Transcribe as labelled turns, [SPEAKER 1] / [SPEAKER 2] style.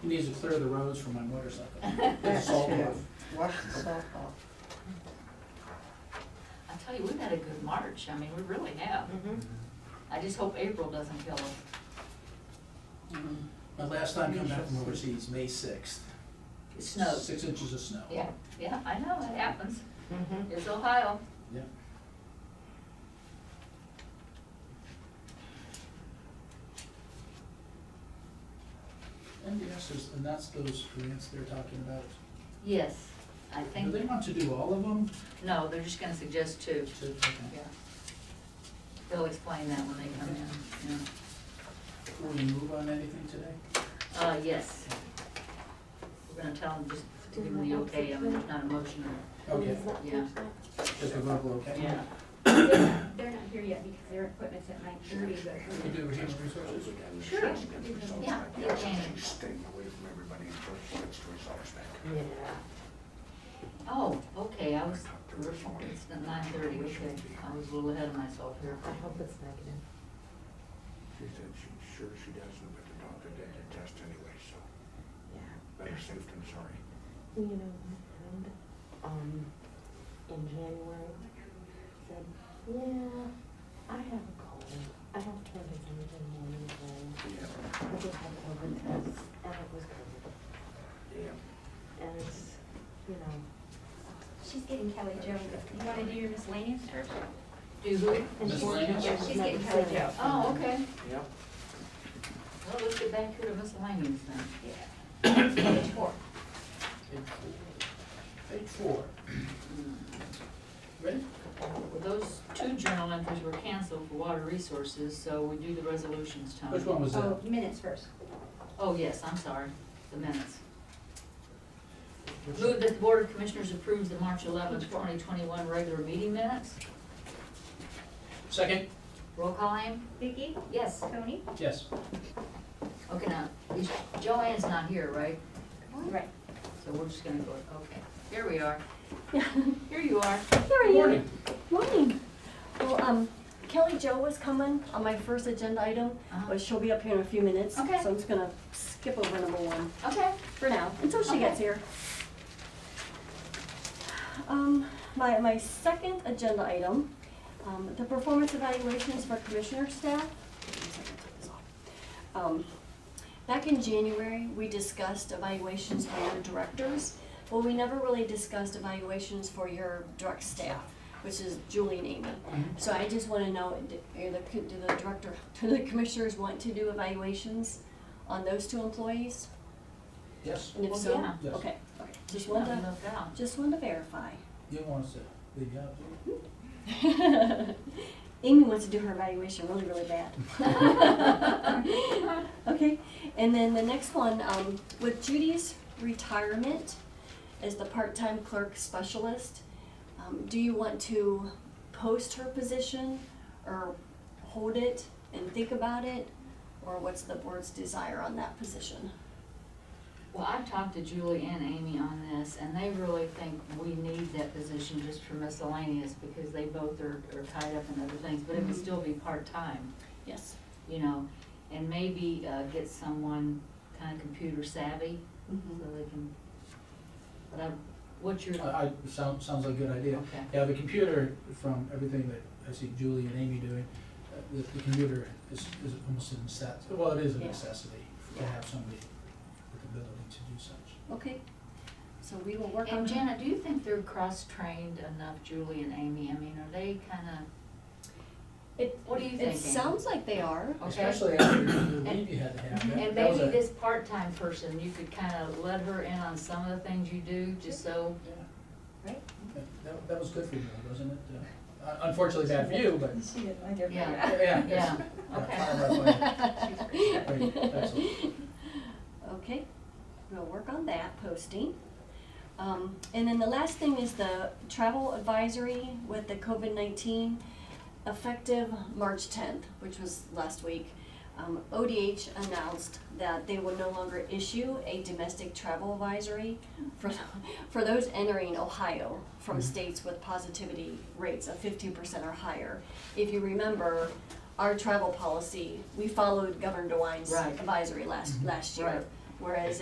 [SPEAKER 1] He needs to clear the roads for my motorcycle.
[SPEAKER 2] That's
[SPEAKER 1] Salt
[SPEAKER 2] true.
[SPEAKER 1] off.
[SPEAKER 2] Wash the salt off.
[SPEAKER 3] I tell you, we've had a good March, I mean, we really have. I just hope April doesn't kill us.
[SPEAKER 1] My last time coming back from overseas, May sixth.
[SPEAKER 3] It snows.
[SPEAKER 1] Six inches of snow.
[SPEAKER 3] Yeah, yeah, I know, it happens.
[SPEAKER 2] Mhm.
[SPEAKER 3] It's Ohio.
[SPEAKER 1] Yeah. NDS is, and that's those grants they're talking about.
[SPEAKER 3] Yes, I
[SPEAKER 1] Do
[SPEAKER 3] think,
[SPEAKER 1] they want to do all of them?
[SPEAKER 3] no, they're just gonna suggest two.
[SPEAKER 1] To- okay.
[SPEAKER 3] Yeah. They'll explain that when they come in, yeah.
[SPEAKER 1] Before we move on anything today?
[SPEAKER 3] Uh, yes. We're gonna tell them, just to give them the okay, I mean, there's not a motion or,
[SPEAKER 1] Okay,
[SPEAKER 3] yeah,
[SPEAKER 1] just a verbal, okay?
[SPEAKER 3] yeah.
[SPEAKER 4] They're they're not here yet because their equipment's at nine thirty, but
[SPEAKER 1] We do human resources?
[SPEAKER 3] Sure. Yeah, you can.
[SPEAKER 5] Staying away from everybody and first, let's resolve that.
[SPEAKER 2] Yeah.
[SPEAKER 3] Oh, okay, I was, it's nine thirty, okay, I was a little ahead of myself here.
[SPEAKER 2] I hope it's negative.
[SPEAKER 5] She said she's sure she doesn't, but the doctor did the test anyway, so
[SPEAKER 2] Yeah.
[SPEAKER 5] better safe than sorry.
[SPEAKER 2] Well, you know, my friend, um, in January said, yeah, I have a cold. I don't think it's anything more than a cold.
[SPEAKER 5] Yeah,
[SPEAKER 2] I just had COVID test and it was COVID.
[SPEAKER 5] yeah.
[SPEAKER 2] And it's, you know,
[SPEAKER 4] she's getting Kelly Joe. You wanna do your miscellaneous first?
[SPEAKER 3] Do who?
[SPEAKER 2] and
[SPEAKER 1] Miss
[SPEAKER 2] she's,
[SPEAKER 1] Lena?
[SPEAKER 2] yeah,
[SPEAKER 4] She's
[SPEAKER 2] she's
[SPEAKER 4] getting
[SPEAKER 2] getting
[SPEAKER 4] Kelly
[SPEAKER 2] sick.
[SPEAKER 4] Joe.
[SPEAKER 3] Oh, okay.
[SPEAKER 5] Yep.
[SPEAKER 3] Well, let's get back here to miscellaneous then.
[SPEAKER 4] Yeah. Page four.
[SPEAKER 1] Page four. Page four. Ready?
[SPEAKER 3] Well, those two journal entries were canceled for water resources, so we do the resolutions, Tony.
[SPEAKER 1] Which one was that?
[SPEAKER 4] Oh, minutes first.
[SPEAKER 3] Oh, yes, I'm sorry, the minutes.
[SPEAKER 1] Which-
[SPEAKER 3] Move that the Board of Commissioners approves the March eleventh, twenty twenty-one regular meeting minutes.
[SPEAKER 1] Second?
[SPEAKER 3] Roll call aim?
[SPEAKER 4] Vicky,
[SPEAKER 3] Yes.
[SPEAKER 4] Tony,
[SPEAKER 1] Yes.
[SPEAKER 3] Okay, now, is- Joanne's not here, right?
[SPEAKER 4] right.
[SPEAKER 3] So we're just gonna go, okay, here we are. Here you are.
[SPEAKER 6] Here
[SPEAKER 1] Good
[SPEAKER 6] you
[SPEAKER 1] morning.
[SPEAKER 6] Morning. Well, um, Kelly Jo was coming on my first agenda item,
[SPEAKER 3] Uh-huh.
[SPEAKER 6] but she'll be up here in a few minutes.
[SPEAKER 3] Okay.
[SPEAKER 6] So I'm just gonna skip over number one
[SPEAKER 3] Okay.
[SPEAKER 6] for now, until she
[SPEAKER 3] Okay.
[SPEAKER 6] gets here. Um, my, my second agenda item, um, the performance evaluations for commissioner staff. Um, Back in January, we discussed evaluations for your directors, but we never really discussed evaluations for your direct staff, which is Julie and Amy. So I just wanna know, do are the co- do the director, do the commissioners want to do evaluations on those two employees?
[SPEAKER 1] Yes.
[SPEAKER 6] And if
[SPEAKER 3] Well,
[SPEAKER 6] so,
[SPEAKER 3] yeah.
[SPEAKER 1] Yes.
[SPEAKER 6] okay, okay, just
[SPEAKER 3] She got
[SPEAKER 6] wanted to,
[SPEAKER 3] left out.
[SPEAKER 6] just wanted to verify.
[SPEAKER 1] You want us to leave you out? do you?
[SPEAKER 6] Amy wants to do her evaluation really, really bad. Okay, and then the next one, um, with Judy's retirement as the part-time clerk specialist, um, do you want to post her position or hold it and think about it? Or what's the board's desire on that position?
[SPEAKER 3] Well, I've talked to Julie and Amy on this, and they really think we need that position just for miscellaneous, because they both are, are tied up in other things, but it would
[SPEAKER 6] Mhm.
[SPEAKER 3] still be part-time,
[SPEAKER 6] Yes.
[SPEAKER 3] you know? And maybe, uh, get someone kinda computer savvy,
[SPEAKER 6] Mm-hmm.
[SPEAKER 3] so they can, but I, what's your,
[SPEAKER 1] I, I, sounds, sounds like a good idea.
[SPEAKER 3] okay,
[SPEAKER 1] Uh, Yeah, the computer, from everything that I see Julie and Amy doing, uh, the, the computer is, is almost a necessity, well, it is a
[SPEAKER 6] Yeah.
[SPEAKER 1] necessity to have somebody with the ability to do such.
[SPEAKER 6] Okay, so we will work on
[SPEAKER 3] and
[SPEAKER 6] that.
[SPEAKER 3] Janet, do you think they're cross-trained enough, Julie and Amy, I mean, are they kinda,
[SPEAKER 6] It,
[SPEAKER 3] what are you thinking?
[SPEAKER 6] it sounds like they are.
[SPEAKER 3] Okay.
[SPEAKER 1] Especially after the leave you had to have. That-
[SPEAKER 3] And
[SPEAKER 1] that was
[SPEAKER 3] maybe
[SPEAKER 1] a-
[SPEAKER 3] this part-time person, you could kind of let her in on some of the things you do, just so,
[SPEAKER 1] Yeah.
[SPEAKER 4] Right.
[SPEAKER 1] That- That, that was good for you, wasn't it? Uh, un- Unfortunately bad for you, but,
[SPEAKER 4] She did, I did.
[SPEAKER 3] Yeah.
[SPEAKER 1] yeah.
[SPEAKER 3] yeah,
[SPEAKER 1] fire
[SPEAKER 3] okay.
[SPEAKER 1] right away. Great, excellent.
[SPEAKER 6] Okay, we'll work on that posting. Um, and then the last thing is the travel advisory with the COVID-19 effective March 10th, which was last week. Um, ODH announced that they will no longer issue a domestic travel advisory for, for those entering Ohio from
[SPEAKER 3] Mm-hmm.
[SPEAKER 6] states with positivity rates of 15% or higher. If you remember, our travel policy, we followed Governor DeWine's
[SPEAKER 3] Right. Mm-hmm.
[SPEAKER 6] advisory last, last year.
[SPEAKER 3] Right.
[SPEAKER 6] Whereas